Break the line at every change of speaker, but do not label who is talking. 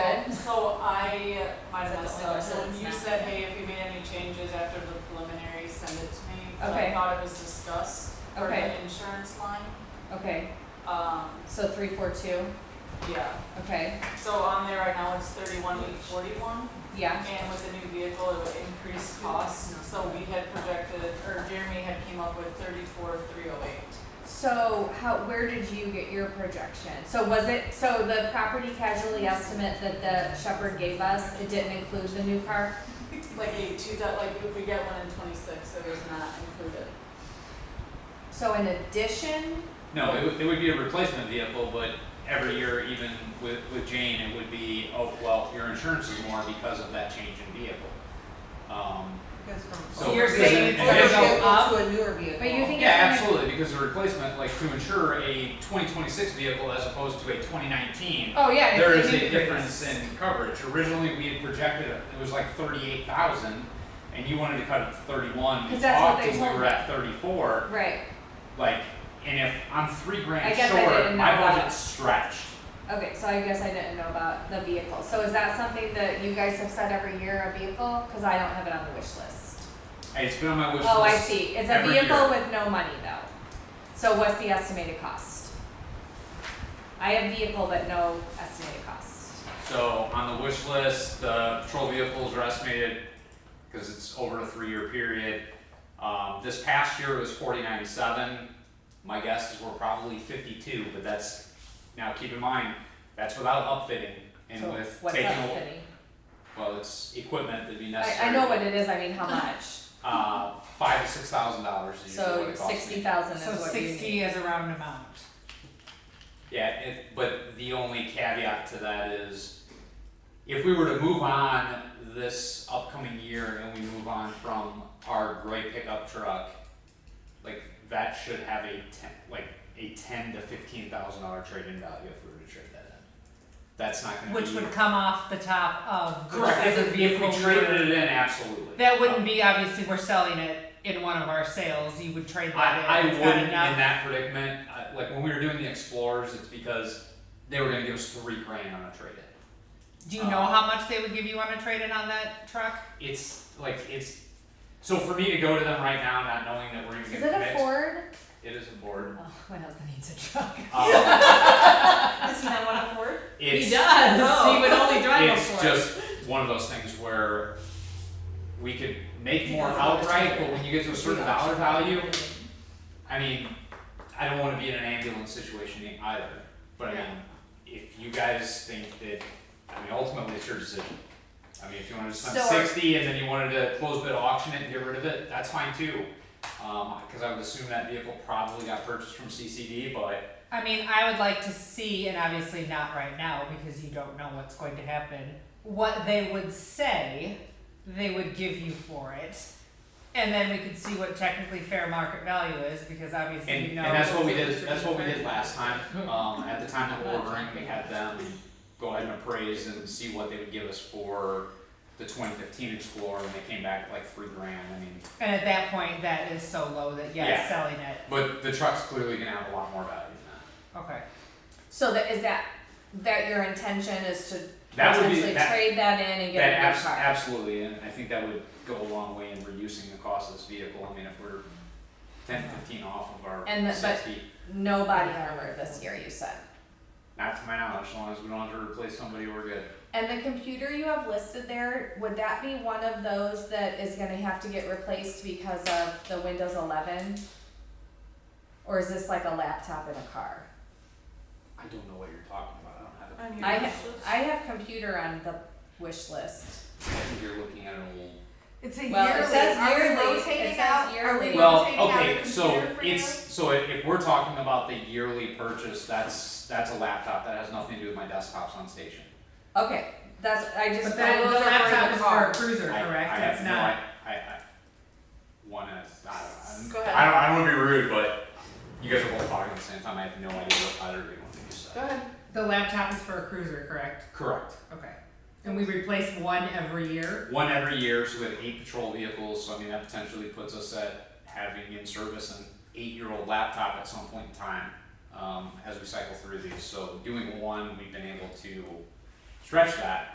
so I, my
Is that the only
myself, so
person
when
that's
you
not-
said, hey, if you made any changes after the preliminary, send it to me. but I
Okay.
thought it was discussed for
Okay.
the insurance line,
Okay,
um,
so three, four, two,
yeah,
okay,
so on there right now it's thirty-one eight forty-one.
yeah,
And with the new vehicle, it would increase costs, so we had projected, or Jeremy had came up with thirty-four three oh eight.
so how, where did you get your projection? So was it, so the property casualty estimate that the Shepherd gave us, it didn't include the new car?
Like eight two, that like if we get one in twenty-six, it was not included.
So in addition,
No, it would, it would be a replacement vehicle, but every year, even with, with Jane, it would be, oh, well, your insurance is more because of that change in vehicle. Um,
So
so.
you're
because
saying
it-
it's gonna
because-
go up?
a newer vehicle.
But you think-
Yeah, absolutely, because the replacement, like to insure a twenty twenty-six vehicle as opposed to a twenty nineteen,
oh yeah,
there
it's
is
an
a
increase.
difference in coverage. Originally, we had projected, it it was like thirty-eight thousand, and you wanted to cut it to thirty-one, we
Because that's what
talked
they
and we
told
were
me.
at thirty-four,
Right,
like, and if I'm three
I
grand
guess I
short,
didn't know
my
that.
budget's stretched.
okay, so I guess I didn't know about the vehicle, so is that something that you guys have said every year, a vehicle? Cause I don't have it on the wish list.
Hey, it's been on my wish list.
Oh, I see, it's a
every
vehicle
year.
with no money though, so what's the estimated cost? I have vehicle but no estimated cost.
So on the wish list, the patrol vehicles are estimated, because it's over a three-year period. Um, this past year it was forty-nine seven. My guess is we're probably fifty-two, but that's, now keep in mind, that's without upfitting and
So
with
what's
taking,
that
a-
fitting?
well, it's equipment that'd be
I,
necessary.
I know what it is, I mean, how much,
Uh, five to six thousand dollars is usually what
so
it costs me.
sixty thousand is
So
what you need.
sixty is a round amount.
Yeah, it, but the only caveat to that is if we were to move on this upcoming year and we move on from our gray pickup truck, like that should have a ten, like a ten to fifteen thousand dollar trade-in value if we were to trade that in. That's not gonna be.
Which would come off the top of which
Correct,
is a
if, if
vehicle.
we traded it in, absolutely.
That wouldn't be, obviously, we're selling it in one of our sales, you would trade that in.
I, I
It's
wouldn't
got
in
enough-
that predicament, I, like when we were doing the Explorers, it's because they were gonna give us three grand on a trade-in.
Do you know
um,
how much they would give you on a trade-in on that truck?
it's like it's so for me to go to them right now not knowing that we're even
Is
gonna
it
commit
a Ford?
it is a board.
Oh, my husband needs a truck.
Um,
Isn't that what I afford?
it's
does,
He would only drive a
it's
Ford.
just one of those things where we could make more outright, but when you get to a certain dollar value, I mean, I don't wanna be in an ambulance situation either. But I mean, if you guys think that, I mean, ultimately it's your decision. I mean, if you wanna spend
So are-
sixty and then you wanted to close bid auction it and get rid of it, that's fine too. Um, cause I would assume that vehicle probably got purchased from CCD, but
I mean, I would like to see, and obviously not right now because you don't know what's going to happen, what they would say they would give you for it. And then we could see what technically fair market value is because obviously
and,
you
and
know.
that's what we did,
it's-
that's what we did last time. Um, at the time of ordering, we had them go ahead and appraise and see what they would give us for the twenty fifteen Explorer and they came back at like three grand, I mean.
And at that point, that is so low that yes,
Yeah.
selling it.
But the truck's clearly gonna have a lot more value than
Okay.
So that is that that your intention is to
that. That would
potentially
be, that,
trade that in and get
that
a new
abs-
car.
absolutely, and I think that would go a long way in reducing the cost of this vehicle, I mean, if we're ten, fifteen off of our
And the- but-
sixty,
no body armor this year, you said.
not to my knowledge, as long as we don't have to replace somebody, we're good.
And the computer you have listed there, would that be one of those that is going to have to get replaced because of the Windows 11? Or is this like a laptop in a car?
I don't know what you're talking about, I don't have
I
it.
I
mean,
ha- I have computer on the wish list.
I think you're looking at an old.
It's a
Well, it
yearly.
says
Are we
yearly. It
rotating
says
out? Are
yearly.
we rotating
Well,
out a
okay, so
computer for
it's,
yearly?
so if, if we're talking about the yearly purchase, that's, that's a laptop, that has nothing to do with my desktops on station.
Okay, that's I just
But
I
that
was
the
referring
laptop
to
is for
car.
a cruiser,
I-
correct?
I have
it's
no
not.
i- I, I wanna, I don't know.
Go
I'm-
ahead.
I don't, I don't wanna be rude, but you guys are both talking at the same time, I have no idea what either of you want to do,
Go
so.
ahead.
The laptop is for a cruiser, correct?
Correct.
Okay. And we replace one every year.
One every year, so we have eight patrol vehicles, so I mean, that potentially puts us at having in service an eight-year-old laptop at some point in time, um, as we cycle through these, so doing one, we've been able to stretch that.